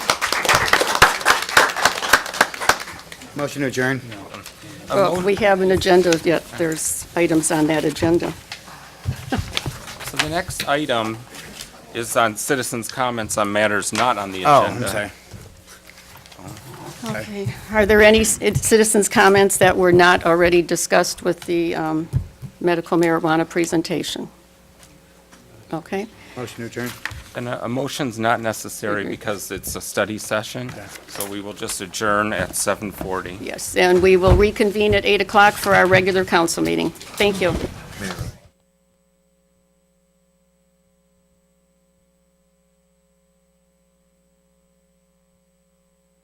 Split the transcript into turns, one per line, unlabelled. Motion to adjourn.
Well, we have an agenda yet. There's items on that agenda.
So the next item is on citizens' comments on matters not on the
Oh,
agenda.
I'm sorry.
Okay. Are there any c- citizens' comments that were not already discussed with the um, medical marijuana presentation? Okay.
Motion to adjourn.
And uh, a a motion's not necessary because it's a study session, so we will just adjourn at 7:40.
Yes, and we will reconvene at 8 o'clock for our regular council meeting. Thank you.